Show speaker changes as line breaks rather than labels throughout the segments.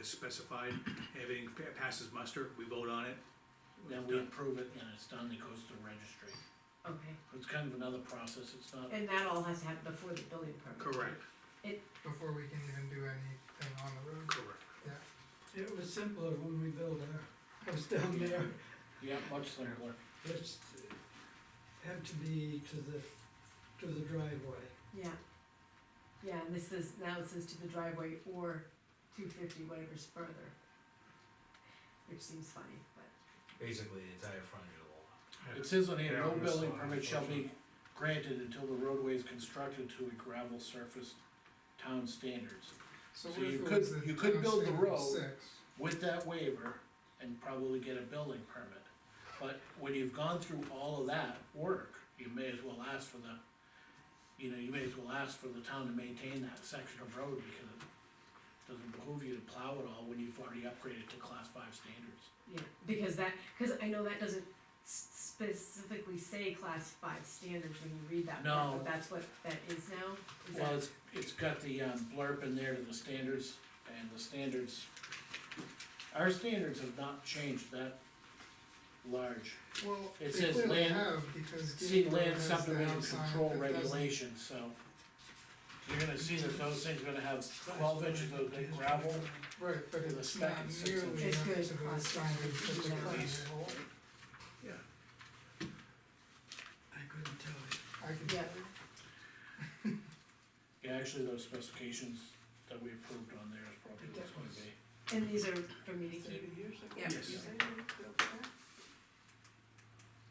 is specified, everything pa- passes muster, we vote on it.
Then we approve it and it's done, it goes to registry.
Okay,
It's kind of another process, it's not,
and that all has to happen before the building permit.
Correct,
before we can even do anything on the road.
correct.
It was simpler when we built our house down there,
yeah, much simpler.
just had to be to the, to the driveway.
Yeah, yeah, and this is, now it says to the driveway or two fifty, whatever's further. Which seems funny, but,
basically the entire frontage of the lot.
It says on here,
Yeah,
no
on this
building
one,
permit shall be granted until the roadway is constructed to a gravel surface town standards. So
what if
you
it
could-
was the
you could
town
build the
standard
road.
Six,
with that waiver and probably get a building permit. But when you've gone through all of that work, you may as well ask for the, you know, you may as well ask for the town to maintain that section of road because it doesn't behoove you to plow it all when you've already upgraded to class five standards.
yeah, because that, cause I know that doesn't s- specifically say class five standards when you read that part,
No.
but that's what that is now, is that?
Well, it's, it's got the um, blurb in there to the standards and the standards, our standards have not changed that large.
well,
It
they
says
clearly
land-
have, because.
See
Gateway
land
has the
subdivision
house sign
control
that doesn't-
regulations, so. You're gonna see that those things are gonna have twelve inches of gravel,
Right, but
The
it's
spec
not
is six
nearly
inches.
up to
It's good,
the
class
standards that the
Yeah.
current hold.
Yeah,
I couldn't tell you.
I can,
Yeah,
yeah, actually, those specifications that we approved on there is probably what's gonna be.
and these are for me to keep,
years ago.
yeah.
Yes.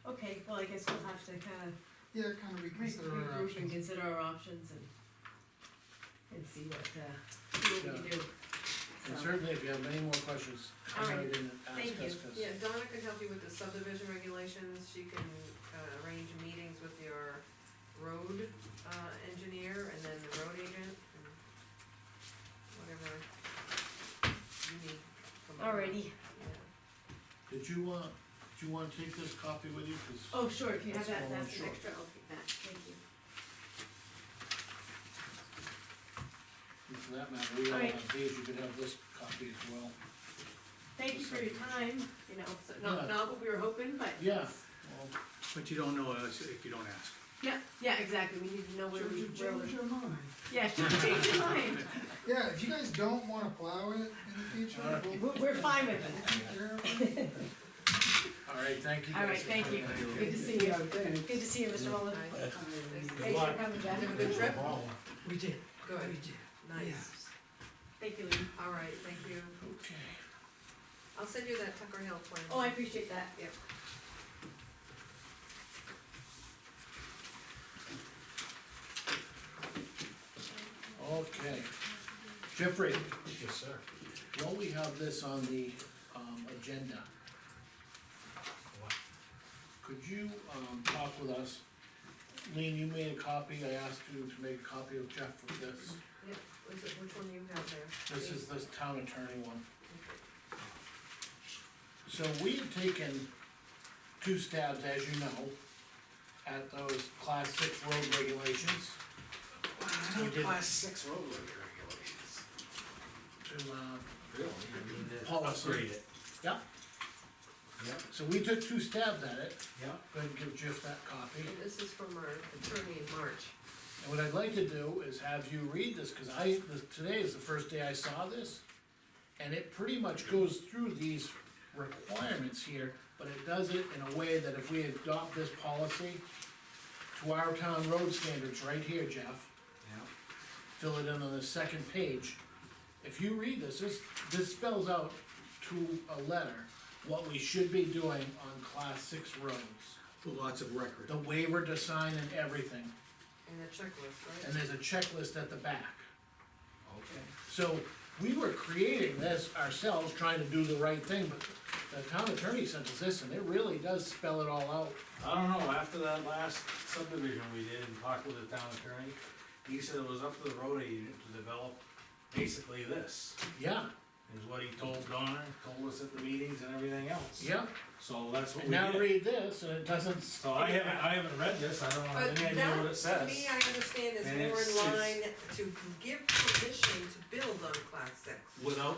Okay, well, I guess we'll have to kinda
yeah, kind of reconsider our
regroup and
options.
consider our options and, and see what, uh, see what we can do.
And
So-
certainly, if you have any more questions, come right in and ask
Thank you.
us, 'cause
Yeah, Donna can help you with the subdivision regulations, she can uh, arrange meetings with your road uh, engineer and then the road agent and whatever you need from them.
Alrighty,
Yeah.
did you, uh, do you wanna take this copy with you, 'Cause
oh, sure, if you have
That's
that,
all,
that's an
sure.
extra, I'll keep that, thank you.
and for that matter, we all
Alright.
have these, you could have this copy as well.
Thank you for your time, you know, so
Yeah.
not, not what we were hoping, but.
Yeah, well,
but you don't know us if you don't ask.
Yeah, yeah, exactly, we need to know where we,
Change
where
your-
we're,
change your mind.
yeah, change your mind,
Yeah, if you guys don't wanna plow it in the future,
Alright.
we'll,
we're, we're fine with
we'll
it.
take care of it.
alright, thank you guys.
Alright,
for
thank you,
coming in.
good to see you, good to see you, Mr. Mullin.
Nice. Nice.
Thanks for coming back.
Have a good trip.
We did, we
Good,
did.
nice.
Thank you, Lee.
Alright, thank you.
Okay.
I'll send you that Tucker Hill plan.
Oh, I appreciate that.
Yep.
Okay. Jeffrey,
Yes, sir.
while we have this on the, um, agenda, could you, um, talk with us? Lean, you made a copy, I asked you to make a copy of Jeff for this.
Yep, Is it- which one do you have there?
This is the town attorney one.
Okay.
So we had taken two stabs, as you know, at those class six road regulations. We did
six road regulations.
to, uh,
Really? I mean, that-
Policy.
it.
Yeah.
Yeah,
So we took two stabs at it,
yeah.
go ahead and give Jeff that copy,
And this is from our attorney in March.
and what I'd like to do is have you read this, cause I, this- today is the first day I saw this. And it pretty much goes through these requirements here, but it does it in a way that if we adopt this policy to our town road standards right here, Jeff,
Yeah.
fill it in on the second page. If you read this, this, this spells out to a letter what we should be doing on class six roads.
For lots of record.
The waiver to sign and everything,
And the
and
checklist, right?
there's a checklist at the back.
Okay.
So we were creating this ourselves, trying to do the right thing, but the town attorney sent us this, and it really does spell it all out.
I don't know, after that last subdivision we did and talked with the town attorney, he said it was up to the road agent to develop basically this,
Yeah,
is what he told Donna, told us at the meetings and everything else.
yeah,
So that's what
and
we
now
did.
read this, and it doesn't.
So I haven't, I haven't read this, I don't
But
have any idea what it
that, to
says.
me, I understand is
And
more
it's-
in
it's-
line to give permission to build on class six.
Without